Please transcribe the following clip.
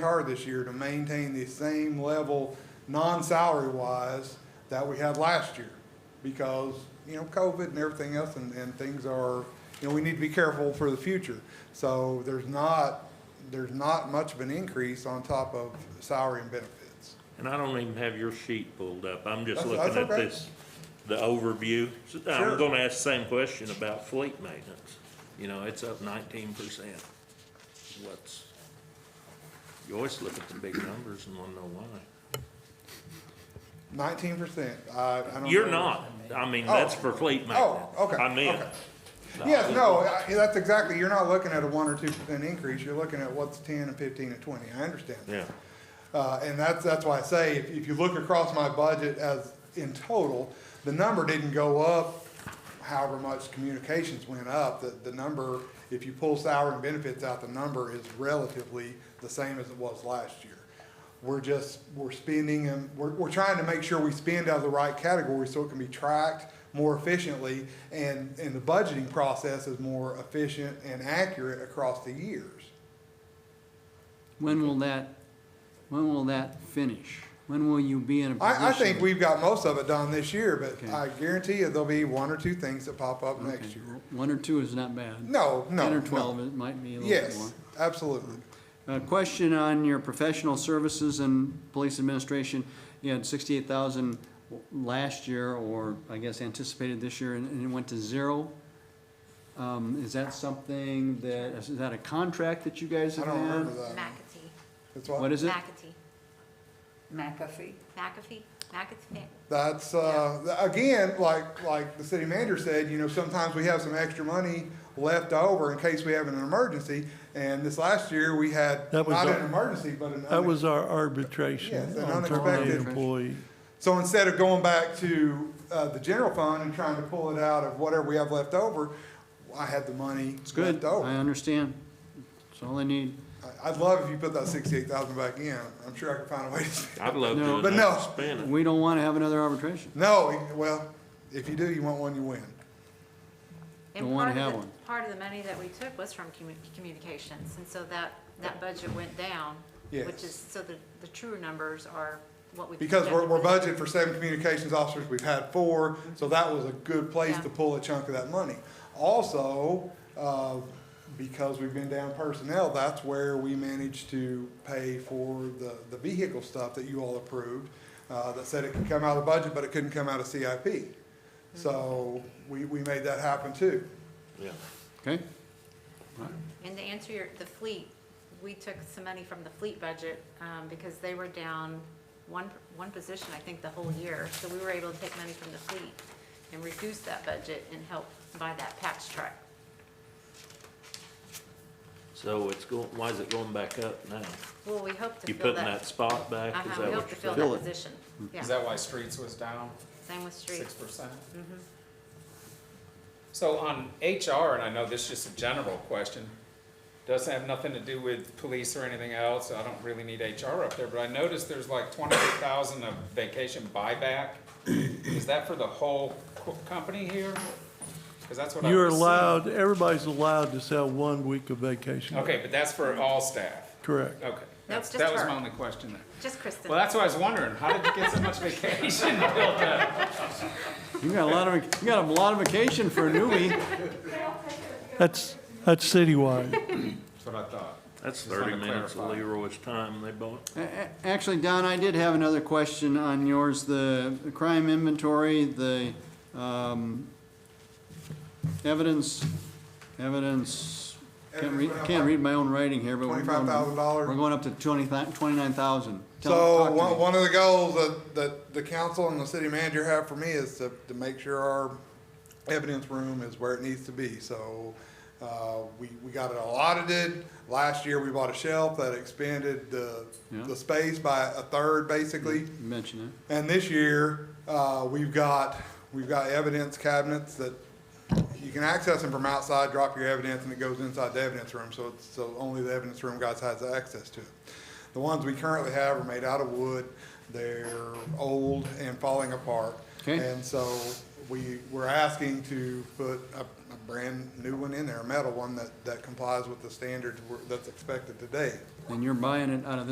hard this year to maintain the same level, non-salary wise, that we had last year. Because, you know, COVID and everything else and, and things are, you know, we need to be careful for the future. So there's not, there's not much of an increase on top of salary and benefits. And I don't even have your sheet pulled up. I'm just That's- that's looking at okay. this, the overview. So Sure. I'm gonna ask the same question about fleet maintenance. You know, it's up nineteen percent. What's, you always look at the big numbers and wanna know why. Nineteen percent, I, I don't know. You're not. I mean, that's Oh. for fleet maintenance. okay, I mean. okay. Yes, no, I- that's exactly, you're not looking at a one or two percent increase, you're looking at what's ten and fifteen and twenty, I understand. that. Yeah, Uh, and that's, that's why I say, if, if you look across my budget as in total, the number didn't go up however much communications went up. The, the number, if you pull salary and benefits out, the number is relatively the same as it was last year. We're just, we're spending and we're, we're trying to make sure we spend out of the right category so it can be tracked more efficiently and, and the budgeting process is more efficient and accurate across the years. When will that, when will that finish? When will you be in a position? I, I think we've got most of it done this year, but Okay. I guarantee you there'll be one or two things that pop up Okay, next year. One or two is not bad. No, no. Ten or no. twelve, it might be a little bit more. Yes, absolutely. A question on your professional services and police administration. You had sixty-eight thousand last year, or I guess anticipated this year, and, and it went to zero. Um, is that something that, is that a contract that you guys I have don't remember that. had? McAtee. That's What what, is it? McAtee. McAfee. McAfee. McAfee. that's, uh, th- again, like, like the city manager said, you know, sometimes we have some extra money left over in case we have an emergency. And this last year, we had That was not a- an emergency, but an. That unex- was our arbitration Yes, an on terminated unexpected- employee. So instead of going back to, uh, the general fund and trying to pull it out of whatever we have left over, I had the money It's left good, over. I understand. That's all I need. I- I'd love if you put that sixty-eight thousand back in. I'm sure I could find a way to. spend- I'd love No. to But not no. spend it. We don't wanna have another arbitration. No, well, if you do, you want one, you win. And Don't wanna part of have the- one. Part of the money that we took was from commu- communications, and so that, that budget went down. Yes. Which is, so the, the truer numbers are what we. Because we're, we're projected. budgeted for seven communications officers, we've had four, so that was a good place to Yeah. pull a chunk of that money. Also, uh, because we've been down personnel, that's where we managed to pay for the, the vehicle stuff that you all approved, uh, that said it could come out of the budget, but it couldn't come out of CIP. So we, we made that happen too. Yeah. Okay? And to answer your, the fleet, we took some money from the fleet budget, um, because they were down one, one position, I think, the whole year. So we were able to take money from the fleet and reduce that budget and help buy that patch truck. So it's going, why is it going back up now? Well, we hope to You fill putting that that. spot back? Uh-huh, Is we that hope what to you're fill saying? that position, yeah. Is that why streets was down Same with streets. Mm-hmm. six percent? So on HR, and I know this is just a general question, doesn't have nothing to do with police or anything else, I don't really need HR up there, but I noticed there's like twenty-eight thousand of vacation buyback. Is that for the whole co- company here? Cause that's what I You're was seeing. allowed, everybody's allowed to sell one week of vacation. Okay, but that's for all staff, Correct. okay. That's- just That was her. my only question there. Just Kristen. Well, that's what I was wondering, how did you get so much vacation built up? You got a lot of, you got a lot of vacation for a newbie. That's, that's citywide. That's what I thought. That's Just wanted thirty to minutes of clarify. Leroy's time they bought. A- a- Actually, Don, I did have another question on yours, the crime inventory, the um, evidence, evidence, can't read, can't read my own writing here, but we're going, $25,000. we're going up to twenty, twenty-nine thousand. So one, one of the goals that, that the council and the city manager have for me is to, to make sure our evidence room is where it needs to be. So, uh, we, we got it all audited. Last year, we bought a shelf that expanded the, Yeah. the space by a third, basically. Mention And this year, uh, we've got, we've got evidence cabinets that you can access them from outside, drop your evidence, and it goes inside the evidence room, so it's, so only the evidence room guys has access to it. The ones we currently have are made out of wood, they're old and falling apart. Okay. And so we, we're asking to put a, a brand new one in there, a metal one that, that complies with the standards we're- that's expected today. it, and you're buying it out of